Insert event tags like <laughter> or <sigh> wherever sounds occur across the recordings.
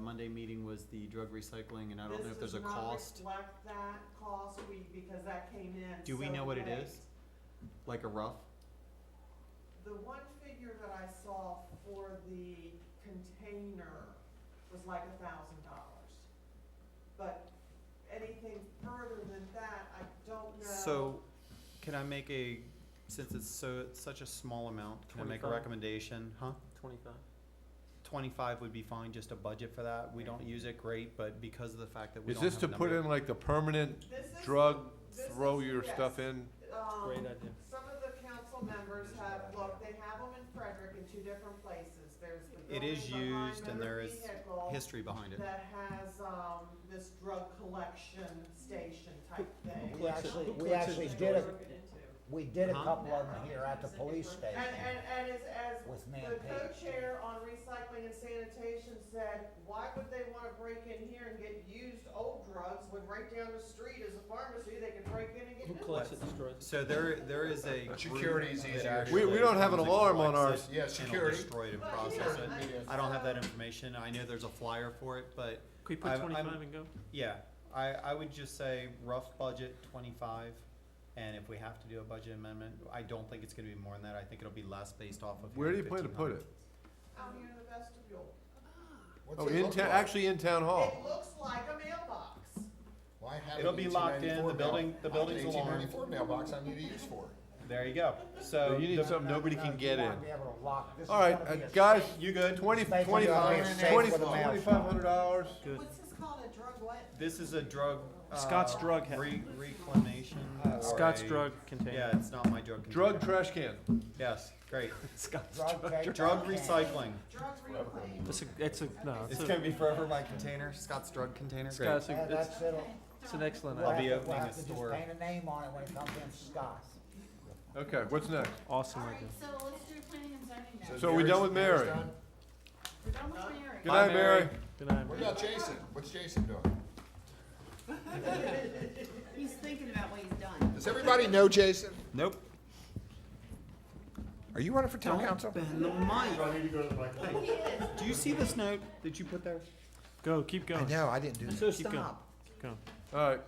Monday meeting was the drug recycling, and I don't know if there's a This cost, does not reflect that cost, we, because that came in Do we so know what it late. is? like a rough? The one figure that I saw for the container was like a thousand dollars. But anything further than that, I don't know. So, can I make a, since it's so, it's such a small amount, can I make a 25? recommendation, huh? Twenty-five? Twenty-five would be fine, just a budget for that, we don't use it great, but because of the fact that we Is don't have this to put number- in like the permanent This is, drug, this is- throw your yes. stuff in? um, Great idea. Some of the council members have, looked. they have them in Frederick in two different places. There's the It building is behind used and motor there is vehicle History behind it, That has, um, this drug collection station type thing. We Collection- actually, who we collects actually his did a, drugs? we did a Huh? couple of them here at the police And, station and, and as, as with man the page. co-chair on recycling and sanitation said, why would they wanna break in here and get used old drugs when right down the street is a pharmacy, they can break in and get Who new collects it, ones? destroys it? so there, there is a group Security is that easier. actually We- we don't have an comes and alarm on collects ours. it Yeah, and will security. destroy it and But, process yeah, it. I- Yes. I don't have that so- information, I know there's a flyer for it, but Could we I- put I'm- twenty-five and go? Yeah, I, I would just say rough budget twenty-five, and if we have to do a budget amendment, I don't think it's gonna be more than that, I think it'll be less based off of. Where do you plan to put it? 1500. Out here in the vestibule. What's Oh, it in look town, like? actually in town It hall. looks like a mailbox. Well, I have It'll an be locked in, 1894 the building- mail- the I have an building's alarm. 1894 mailbox I need to use for. There you go, so. Uh, You need the- something nobody No, can you get wanna in. be able to lock- this is All right, gonna be uh, a- guys, You good? twenty, Thank you, twenty-five, Dr. Safe twenty, for the mouse. twenty-five hundred dollars. Good. this called, a drug what? This is a drug. uh, Scott's drug ha- Uh, Re- reclamation. or Scott's a- drug container. Yeah, it's not my drug. Drug container. trash can. Yes, great. <laughs> Scott's Drug <laughs> take- Drug okay. recycling. Drug reclaim. It's a, it's a, no, it's It's a, gonna be forever my container, Scott's drug container, great. Scott's, Yeah, a- it's, that's it. it's an excellent We'll I'll have idea. be to- opening we'll a have to just store. Paint a name on it when it comes in, Scott. Okay, what's next? Awesome All right, idea. so let's do planning and zoning now. So we Mary's- done with Mary's Mary? done? We're done with Mary. Good Bye, night, Mary. Mary. Good night. What man. about Jason? What's Jason doing? He's thinking about what he's done. Does everybody know Jason? Nope. Are you running for town council? Bend the mic. Do you see this note that you put there? Go, keep going. No, I didn't do that. So Keep going. stop. Keep going. All right,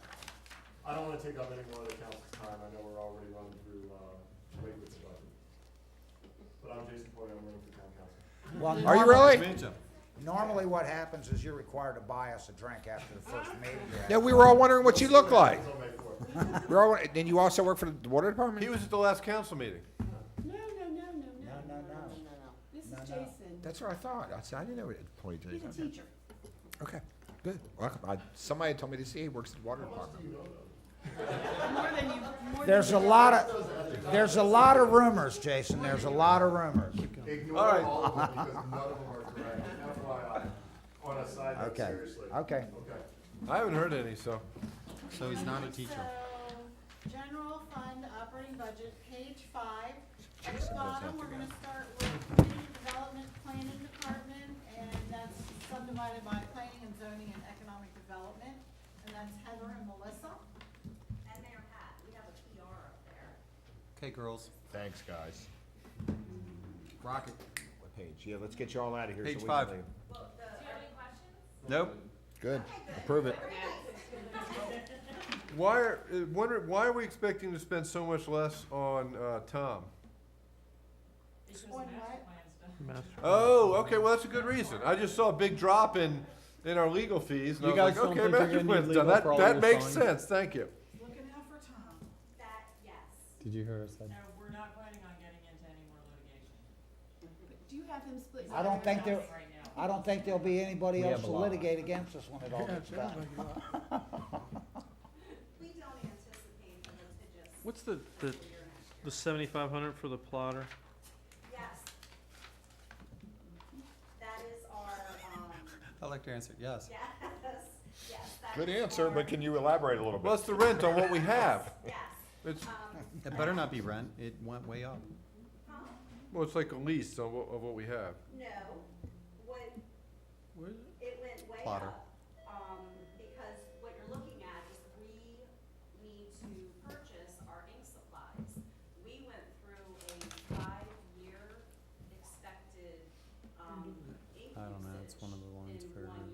I don't wanna take up any more of the council's time, I know we're already running through, uh, late with the budget. But I'm Jason Poyer, I'm running for town council. Well, Are you normally- really? Normally what happens is you're required to buy us a drink after the first meeting. you're at. Yeah, we were all wondering what you look like. It's on May fourth. We're all, then you also work for the water he department? was at the last council meeting. No, no, no, no, No, no, no. This is No, no. Jason. That's what I thought. I said, I didn't know it employed He's a Jason. teacher. Okay, good. Welcome. I, somebody told me to see he works at the water department. More than you, more than There's you a did. lot of, there's a lot of rumors, Jason, there's a lot of rumors. All Ignore right. all of them, because none of them are correct, FYI, on a side note, Okay, seriously. okay. Okay. I haven't heard any, so. So he's not a teacher. So, general fund operating budget, page five. At the bottom, we're gonna start with community development planning department, and that's subdivided by planning and zoning and economic development. And that's Heather and Melissa. And Mayor Pat, we have a PR up there. Okay, girls, Thanks, guys. rock it. What page? Yeah, let's get you all out of here. so Page we can five. leave. Well, the. Do you have any questions? Nope. Good. Approve it. Why are, uh, wonder, why are we expecting to spend so much less on, uh, Tom? On what? Master. Oh, okay, well, that's a good reason. I just saw a big drop in, in our legal fees, and I You was guys like, don't okay, think you're Master gonna need Quinn's legal done, that, for all that your makes fines? sense, thank you. Looking out for Tom. That, yes. Did you hear us? No, we're not planning on getting into any more litigation Do you have him split? I don't think there, right now. I don't think there'll be anybody We else have a to lot. litigate against us when it all gets done. We don't anticipate the litigious. What's the, the, until you're next year. the seventy-five hundred for the plotter? Yes. That is our, um, <laughs> I like to answer, yes. yes, yes, that Good is answer, our- but can you elaborate a little bit? Plus the rent on what we have. Yes, It's, um, It better not be rent, it went way up. huh? well, it's like a lease on what, of what we have. No, what, Where, um, um,